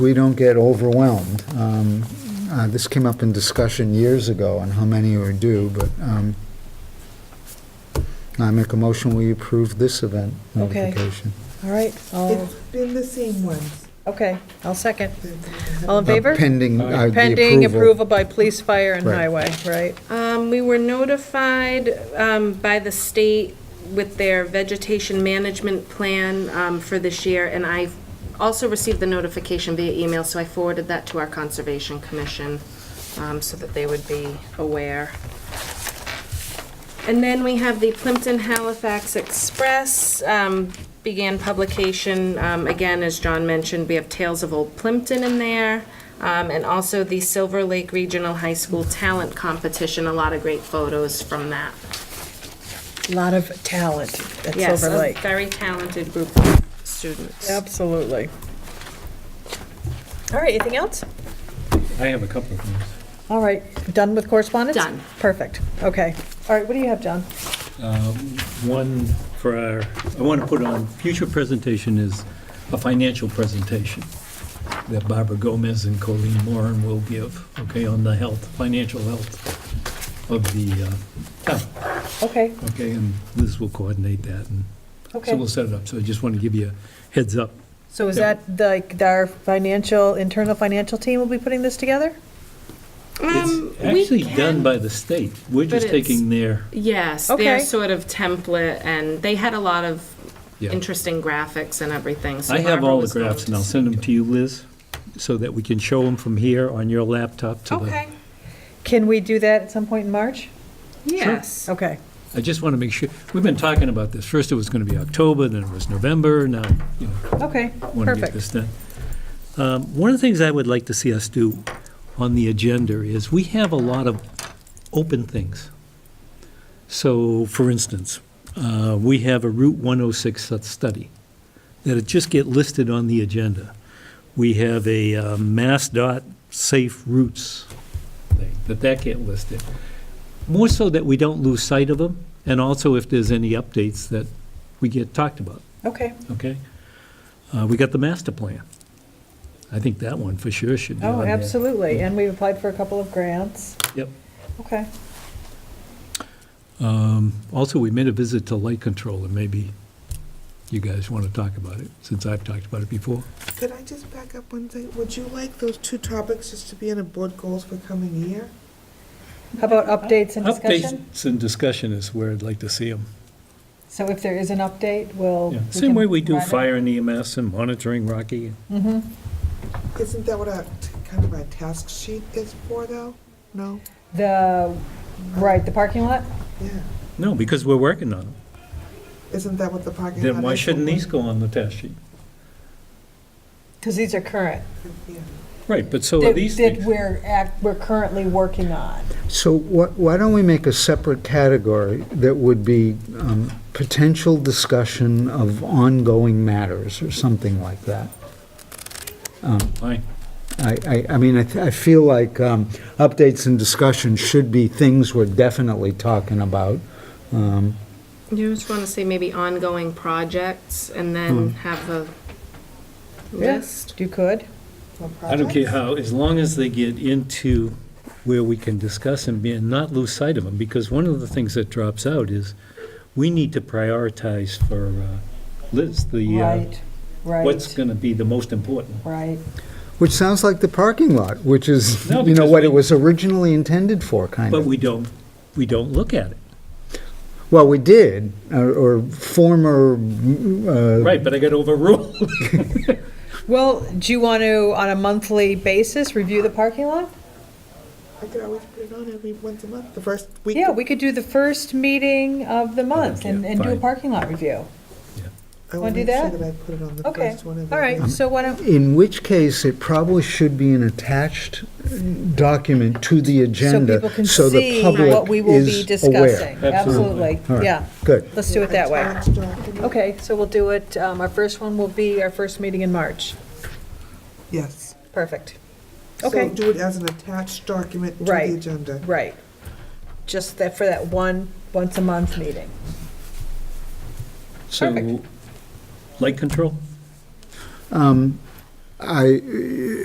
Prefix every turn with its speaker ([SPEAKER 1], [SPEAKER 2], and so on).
[SPEAKER 1] we don't get overwhelmed. Um, uh, This came up in discussion years ago on how many are due, but um, I make a motion, we approve this event
[SPEAKER 2] Okay.
[SPEAKER 1] notification. Uh,
[SPEAKER 2] All right, I'll,
[SPEAKER 3] It's been the same ones.
[SPEAKER 2] okay, I'll second. All in favor?
[SPEAKER 1] Uh, Pending. uh, the
[SPEAKER 2] Pending approval by police, fire, and
[SPEAKER 1] Right.
[SPEAKER 2] highway, right?
[SPEAKER 4] Um, we were notified, um, by the state with their vegetation management plan, um, for this year, and I also received the notification via email, so I forwarded that to our Conservation Commission, um, so that they would be aware. And then we have the Plimpton Halifax Express, um, began publication, um, again, as John mentioned, we have Tales of Old Plimpton in there, um, and also the Silver Lake Regional High School Talent Competition, a lot of great photos from that.
[SPEAKER 2] Lot of talent at
[SPEAKER 4] Yes,
[SPEAKER 2] Silver
[SPEAKER 4] a
[SPEAKER 2] Lake.
[SPEAKER 4] very talented group of students.
[SPEAKER 2] Absolutely. All right, anything else?
[SPEAKER 5] I have a couple of things.
[SPEAKER 2] All right, done with correspondence?
[SPEAKER 4] Done.
[SPEAKER 2] Perfect, okay. All right, what do you have, John?
[SPEAKER 5] One for our, I want to put on, future presentation is a financial presentation that Barbara Gomez and Colleen Moran will give, okay, on the health, financial health of the uh, town,
[SPEAKER 2] Okay,
[SPEAKER 5] okay, and Liz will coordinate that, and so
[SPEAKER 2] okay.
[SPEAKER 5] we'll set it up. So I just want to give you a heads up.
[SPEAKER 2] So is that like our financial, internal financial team will be putting this together?
[SPEAKER 4] Um,
[SPEAKER 5] It's
[SPEAKER 4] we
[SPEAKER 5] actually done
[SPEAKER 4] can-
[SPEAKER 5] by the state. We're just
[SPEAKER 4] but it's-
[SPEAKER 5] taking their,
[SPEAKER 4] Yes,
[SPEAKER 2] Okay.
[SPEAKER 4] their sort of template, and they had a lot of
[SPEAKER 5] yeah.
[SPEAKER 4] interesting graphics and everything, so
[SPEAKER 5] I have
[SPEAKER 4] Barbara
[SPEAKER 5] all the
[SPEAKER 4] was going
[SPEAKER 5] graphs,
[SPEAKER 4] to
[SPEAKER 5] and I'll
[SPEAKER 4] see-
[SPEAKER 5] send them to you, Liz, so that we can show them from here on your laptop to the...
[SPEAKER 4] Okay,
[SPEAKER 2] Can we do that at some point in March?
[SPEAKER 4] yes.
[SPEAKER 2] Okay,
[SPEAKER 5] I just want to make sure, we've been talking about this. First, it was going to be October, then it was November, now, you know,
[SPEAKER 2] okay,
[SPEAKER 5] want to get
[SPEAKER 2] perfect.
[SPEAKER 5] this done. Um, One of the things I would like to see us do on the agenda is, we have a lot of open things. So, for instance, uh, we have a Route 106 stud- study that'll just get listed on the agenda. We have a uh, MassDOT Safe Routes thing, that that get listed. More so that we don't lose sight of them, and also if there's any updates that we get talked about
[SPEAKER 2] Okay,
[SPEAKER 5] okay? Uh, We got the master plan. I think that one for sure should be on
[SPEAKER 2] oh,
[SPEAKER 5] there.
[SPEAKER 2] absolutely, and we've applied for a couple of grants.
[SPEAKER 5] Yep.
[SPEAKER 2] Okay,
[SPEAKER 5] Um, Also, we made a visit to light control, and maybe you guys want to talk about it, since I've talked about it before.
[SPEAKER 3] Could I just back up one thing? Would you like those two topics just to be in a board goals for coming year?
[SPEAKER 2] how about updates and discussion?
[SPEAKER 5] Updates and discussion is where I'd like to see them.
[SPEAKER 2] So if there is an update, we'll.
[SPEAKER 5] Same way we do
[SPEAKER 2] Oh, can-
[SPEAKER 5] fire and EMS and monitoring Rocky.
[SPEAKER 2] Mhm.
[SPEAKER 3] Isn't that what our, t- kind of our task sheet is for though? No?
[SPEAKER 2] The, right, the parking lot?
[SPEAKER 3] Yeah.
[SPEAKER 5] No, because we're working on them.
[SPEAKER 3] Isn't that what the parking lot?
[SPEAKER 5] Then why
[SPEAKER 3] is for?
[SPEAKER 5] shouldn't these go on the test sheet?
[SPEAKER 2] Because these are current.
[SPEAKER 3] Yeah.
[SPEAKER 5] Right, but so are these
[SPEAKER 2] That that
[SPEAKER 5] things.
[SPEAKER 2] we're, act- we're currently working on.
[SPEAKER 1] So wh- why don't we make a separate category that would be um, potential discussion of ongoing matters or something like that?
[SPEAKER 5] Fine.
[SPEAKER 1] I, I, I mean, I, th- I feel like um, updates and discussion should be things we're definitely talking about. Um,
[SPEAKER 4] You just want to say maybe ongoing projects and then have a list?
[SPEAKER 2] You could.
[SPEAKER 3] For
[SPEAKER 5] I don't care
[SPEAKER 3] projects?
[SPEAKER 5] how, as long as they get into where we can discuss and be- and not lose sight of them, because one of the things that drops out is, we need to prioritize for uh, Liz, the, uh,
[SPEAKER 2] Right,
[SPEAKER 5] what's
[SPEAKER 2] right,
[SPEAKER 5] going to be the most important.
[SPEAKER 2] right.
[SPEAKER 1] which sounds like the parking lot, which is, you
[SPEAKER 5] No,
[SPEAKER 1] know,
[SPEAKER 5] because
[SPEAKER 1] what
[SPEAKER 5] we-
[SPEAKER 1] it was originally intended for, kind
[SPEAKER 5] But
[SPEAKER 1] of.
[SPEAKER 5] we don't, we don't look at it.
[SPEAKER 1] Well, we did, or, or former, uh,
[SPEAKER 5] Right, but I got overruled.
[SPEAKER 2] Well, do you want to, on a monthly basis, review the parking lot?
[SPEAKER 3] I could always put it on every once a month, the first week.
[SPEAKER 2] Yeah, we could do the first meeting of the month and, and do a
[SPEAKER 5] fine.
[SPEAKER 2] parking lot review.
[SPEAKER 3] I will
[SPEAKER 2] wanna do
[SPEAKER 3] make sure
[SPEAKER 2] that?
[SPEAKER 3] that I put it on the
[SPEAKER 2] Okay,
[SPEAKER 3] first one of the.
[SPEAKER 2] all right, so why don't,
[SPEAKER 1] in which case it probably should be an attached document to the
[SPEAKER 2] so
[SPEAKER 1] agenda.
[SPEAKER 2] people can
[SPEAKER 1] the
[SPEAKER 2] see
[SPEAKER 1] public
[SPEAKER 2] what we will be
[SPEAKER 1] is aware.
[SPEAKER 2] discussing. Absolutely,
[SPEAKER 1] All right.
[SPEAKER 2] yeah,
[SPEAKER 1] Good.
[SPEAKER 2] let's do it that way.
[SPEAKER 3] Attached document.
[SPEAKER 2] Okay, so we'll do it, um, our first one will be our first meeting in March.
[SPEAKER 3] Yes.
[SPEAKER 2] Perfect, Okay.
[SPEAKER 3] So do it as an attached document to
[SPEAKER 2] Right.
[SPEAKER 3] the agenda.
[SPEAKER 2] right. Just that, for that one, once a month meeting.
[SPEAKER 5] So,
[SPEAKER 2] Perfect.
[SPEAKER 5] light control?
[SPEAKER 1] Um, I,